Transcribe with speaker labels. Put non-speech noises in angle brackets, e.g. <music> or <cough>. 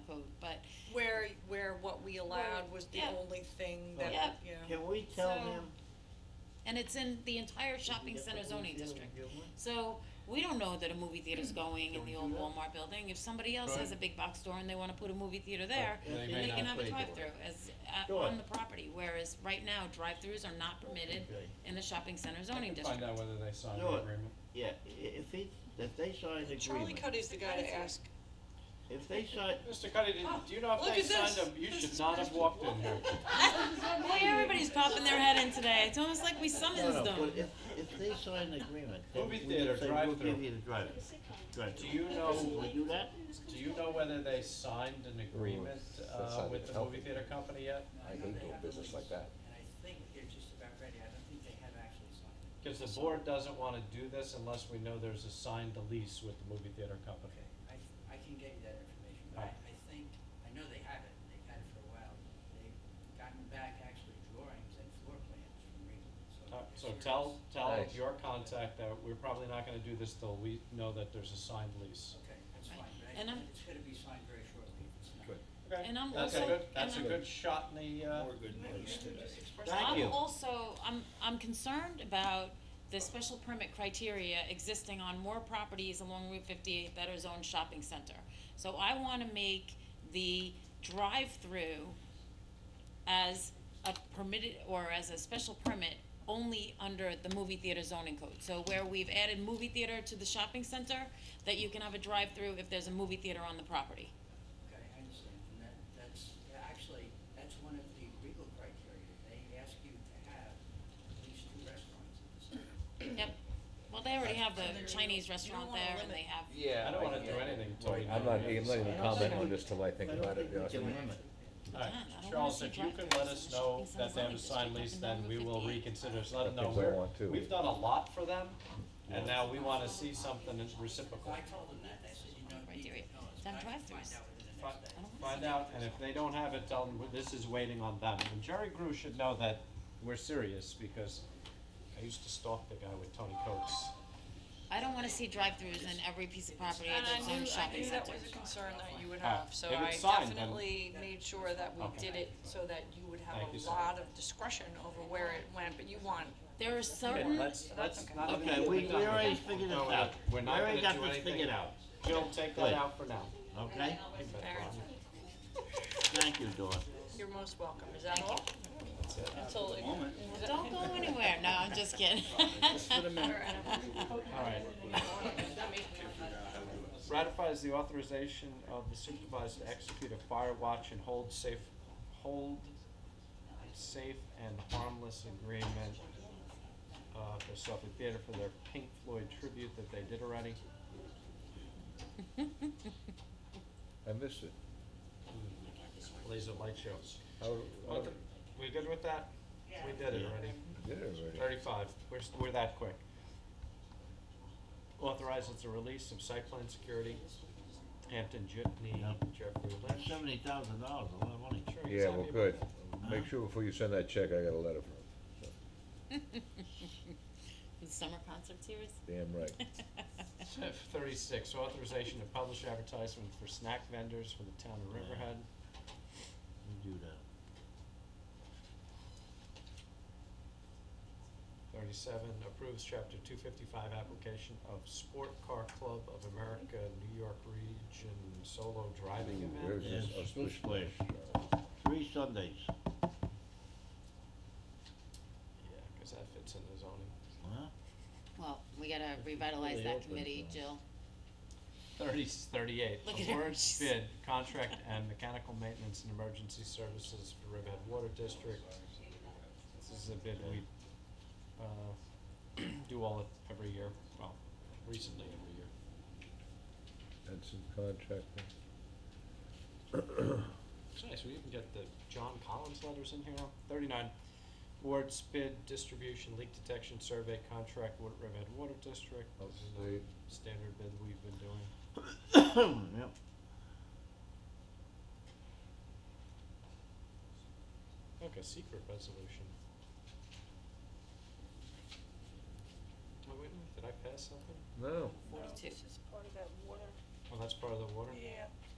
Speaker 1: code, but,
Speaker 2: Where, where what we allowed was the
Speaker 1: yeah.
Speaker 2: only thing that,
Speaker 1: Yeah.
Speaker 2: yeah.
Speaker 3: Can we tell
Speaker 1: So-
Speaker 3: him?
Speaker 1: and it's in the entire shopping
Speaker 3: Get
Speaker 1: center
Speaker 3: the
Speaker 1: zoning
Speaker 3: movie
Speaker 1: district.
Speaker 3: and give him-
Speaker 1: So, we don't know that a movie theater's going in the
Speaker 3: Don't
Speaker 1: old
Speaker 3: do that.
Speaker 1: Walmart building, if somebody else
Speaker 4: Right.
Speaker 1: has a big box store and they wanna put a movie theater there,
Speaker 3: They
Speaker 1: then
Speaker 3: may
Speaker 1: they can
Speaker 4: not
Speaker 1: have a
Speaker 4: pay for it.
Speaker 1: drive-through as, uh,
Speaker 3: Sure.
Speaker 1: on the property, whereas right now, drive-throughs are not permitted
Speaker 3: Okay.
Speaker 1: in the shopping center
Speaker 4: I
Speaker 1: zoning
Speaker 4: can
Speaker 1: district.
Speaker 4: find out whether they signed
Speaker 3: No,
Speaker 4: the agreement.
Speaker 3: Yeah, i- if he, if they sign an
Speaker 2: Charlie
Speaker 3: agreement,
Speaker 2: Cuddy's the guy to ask.
Speaker 3: if they sign,
Speaker 4: Mr. Cuddy, did,
Speaker 1: Oh,
Speaker 4: do you know
Speaker 2: Look
Speaker 4: if they
Speaker 2: at
Speaker 4: signed
Speaker 2: this.
Speaker 4: them? You
Speaker 2: This
Speaker 4: should
Speaker 2: is
Speaker 4: not have walked in here.
Speaker 1: <laughs> Boy, everybody's popping their head in today, it's almost like we
Speaker 3: no,
Speaker 1: summons
Speaker 3: no,
Speaker 1: them.
Speaker 3: but if, if they sign an agreement, then we
Speaker 4: Movie
Speaker 3: can
Speaker 4: theater,
Speaker 3: say, we'll
Speaker 4: drive-through.
Speaker 3: give you the drive, drive.
Speaker 4: Do you know,
Speaker 3: We Oh, do that?
Speaker 4: do you know whether they signed an agreement, uh, with the movie theater company yet?
Speaker 5: I hate doing business like that.
Speaker 6: And I think they're just about ready, I don't think they have actually signed it.
Speaker 4: Cause the board doesn't wanna do this unless we know there's a signed lease with the movie theater company.
Speaker 6: Okay, I, I can get you that information, but I, I think, I know they have it, they've had it for a while. They've gotten back actually drawings and floor plans from Ringgold, so.
Speaker 4: Uh,
Speaker 6: they're
Speaker 4: So
Speaker 6: serious.
Speaker 4: tell, tell
Speaker 5: Nice.
Speaker 4: your contact that we're probably not gonna do this till we know that there's a signed lease.
Speaker 6: Okay, that's
Speaker 1: Right.
Speaker 6: fine, but
Speaker 1: And
Speaker 6: I,
Speaker 1: I'm-
Speaker 6: it's gonna be signed very shortly, if it's not.
Speaker 4: Okay.
Speaker 1: And I'm
Speaker 4: That's a
Speaker 1: also-
Speaker 4: good, that's a
Speaker 1: and I'm-
Speaker 4: good shot in the, uh,
Speaker 3: Thank you.
Speaker 1: I'm also, I'm, I'm concerned about the special permit criteria existing on more properties along Route fifty-eight that are zoned shopping center. So I wanna make the drive-through as a permitted, or as a special permit, only under the movie theater zoning code. So where we've added movie theater to the shopping center, that you can have a drive-through if there's a movie theater on the property.
Speaker 6: Okay, I understand, and that, that's, yeah, actually, that's one of the legal criteria, they ask you to have at least two restaurants in the city.
Speaker 1: Yep, well, they already have
Speaker 2: And
Speaker 1: the
Speaker 2: there-
Speaker 1: Chinese
Speaker 2: you don't
Speaker 1: restaurant
Speaker 2: wanna
Speaker 1: there, and they
Speaker 2: limit-
Speaker 1: have
Speaker 5: Yeah.
Speaker 4: I don't wanna do anything till we
Speaker 5: Right,
Speaker 4: know.
Speaker 5: I'm not,
Speaker 4: we
Speaker 5: I'm
Speaker 4: have a
Speaker 5: not even
Speaker 4: signed-
Speaker 5: commenting on this till I think
Speaker 3: I don't
Speaker 5: about it,
Speaker 3: think
Speaker 5: to be
Speaker 3: we can
Speaker 5: honest with you.
Speaker 3: limit it.
Speaker 4: Alright,
Speaker 1: Yeah, I don't
Speaker 4: Charles,
Speaker 1: wanna
Speaker 4: if
Speaker 1: see
Speaker 4: you can
Speaker 1: drive-throughs
Speaker 4: let
Speaker 1: in
Speaker 4: us
Speaker 1: the
Speaker 4: know
Speaker 1: shopping
Speaker 4: that they have a
Speaker 1: centers,
Speaker 4: signed
Speaker 1: like
Speaker 4: lease,
Speaker 1: up
Speaker 4: then
Speaker 1: and
Speaker 4: we
Speaker 1: down
Speaker 4: will
Speaker 1: Route 58.
Speaker 4: reconsider, it. let them
Speaker 5: If
Speaker 4: know
Speaker 5: they
Speaker 4: we're,
Speaker 5: want to.
Speaker 4: we've done a lot for them, and now we wanna see something that's
Speaker 6: If
Speaker 4: reciprocal.
Speaker 6: I told them that, they said you don't need
Speaker 1: criteria.
Speaker 6: to tell us,
Speaker 1: Then
Speaker 6: I can
Speaker 1: drive-thrus.
Speaker 6: find out within the
Speaker 4: Fi-
Speaker 6: next day.
Speaker 1: I don't wanna
Speaker 4: Find out, and if they don't have it, tell them, "Well, this is waiting on them, and Jerry Grew should know that we're serious, because I used to stalk the guy with Tony Coates.
Speaker 1: I don't wanna see drive-throughs in every piece of property
Speaker 2: And I
Speaker 1: that's on
Speaker 2: knew, I
Speaker 1: shopping
Speaker 2: knew that
Speaker 1: centers.
Speaker 2: was a concern that you would
Speaker 4: Ah,
Speaker 2: have, so
Speaker 4: if
Speaker 2: I
Speaker 4: it's signed, then-
Speaker 2: definitely made sure that we
Speaker 4: Okay.
Speaker 2: did it so that you would have
Speaker 4: Thank you,
Speaker 2: a
Speaker 4: sir.
Speaker 2: lot of discretion over where it went, but you want,
Speaker 1: There are
Speaker 4: Okay,
Speaker 1: certain,
Speaker 4: let's, let's
Speaker 2: okay.
Speaker 4: not.
Speaker 3: Mm-hmm. Okay, we, we already figured this out.
Speaker 4: We're not
Speaker 3: We
Speaker 4: gonna
Speaker 3: already
Speaker 4: do
Speaker 3: got
Speaker 4: anything.
Speaker 3: this figured out,
Speaker 4: Jill, take
Speaker 3: Good.
Speaker 4: that out for now.
Speaker 3: okay?
Speaker 2: Alright.
Speaker 3: Thank you, Dawn.
Speaker 2: you're most welcome, is that all? Until, is that-
Speaker 1: don't go anywhere, no, I'm just
Speaker 2: <laughs>
Speaker 1: kidding. <laughs>
Speaker 4: Alright.
Speaker 2: uh,
Speaker 4: Ratifies the authorization of the supervisor to execute a fire watch and hold safe, hold safe and harmless agreement uh, for Suffolk Theater for their Pink Floyd tribute that they did already.
Speaker 5: I missed it.
Speaker 4: Laser light shows.
Speaker 5: How, uh, how,
Speaker 4: Okay, We good with that? We did it already.
Speaker 5: did it already.
Speaker 4: Thirty-five, we're, s- we're that quick. Authorizes the release of site plan security, Hampton Jitney,
Speaker 3: Yep.
Speaker 4: Jeffrey
Speaker 3: That's
Speaker 4: Lynch.
Speaker 3: seventy thousand dollars, a lot of money.
Speaker 4: Sure, he's
Speaker 5: Yeah,
Speaker 4: happy
Speaker 5: well,
Speaker 4: about
Speaker 5: good.
Speaker 4: that.
Speaker 5: Make sure before you send that check, I got a letter from him,
Speaker 1: The Summer concert series?
Speaker 5: so, damn right.
Speaker 3: <laughs>
Speaker 4: Thirty-six, authorization to publish advertisements for snack vendors for the town of Riverhead.
Speaker 3: We do that.
Speaker 4: Thirty-seven, approves chapter two fifty-five application of Sport Car Club of America, New York Region Solo Driving Event.
Speaker 5: Where's this?
Speaker 3: Yes,
Speaker 5: Oh,
Speaker 3: Swiss
Speaker 5: Swiss
Speaker 3: Place.
Speaker 5: Place.
Speaker 3: Three Sundays,
Speaker 4: Yeah, cause that fits in the zoning.
Speaker 1: <laughs>
Speaker 3: huh? <clears throat>
Speaker 1: Well, we gotta revitalize
Speaker 5: really
Speaker 1: that
Speaker 5: open,
Speaker 1: committee,
Speaker 5: so.
Speaker 1: Jill.
Speaker 4: Thirty, thirty-eight,
Speaker 1: Look at her,
Speaker 4: awards
Speaker 1: she's-
Speaker 4: bid, contract and mechanical maintenance and emergency services for Riverhead Water District. This is a bid we, uh, <clears throat> do all, every year, well, recently every year.
Speaker 5: That's some contracting.
Speaker 4: It's nice, we even get the John Collins letters in here now. Thirty-nine, awards bid, distribution, leak detection survey, contract, Wa- Riverhead Water District. This is the
Speaker 5: Upstate.
Speaker 4: Standard bid we've been doing.
Speaker 3: Yep.
Speaker 4: Like a secret resolution. Oh, wait, a minute, did I pass something?
Speaker 5: No,
Speaker 1: Forty-two.
Speaker 4: Oh, that's part of the water?
Speaker 7: Yeah,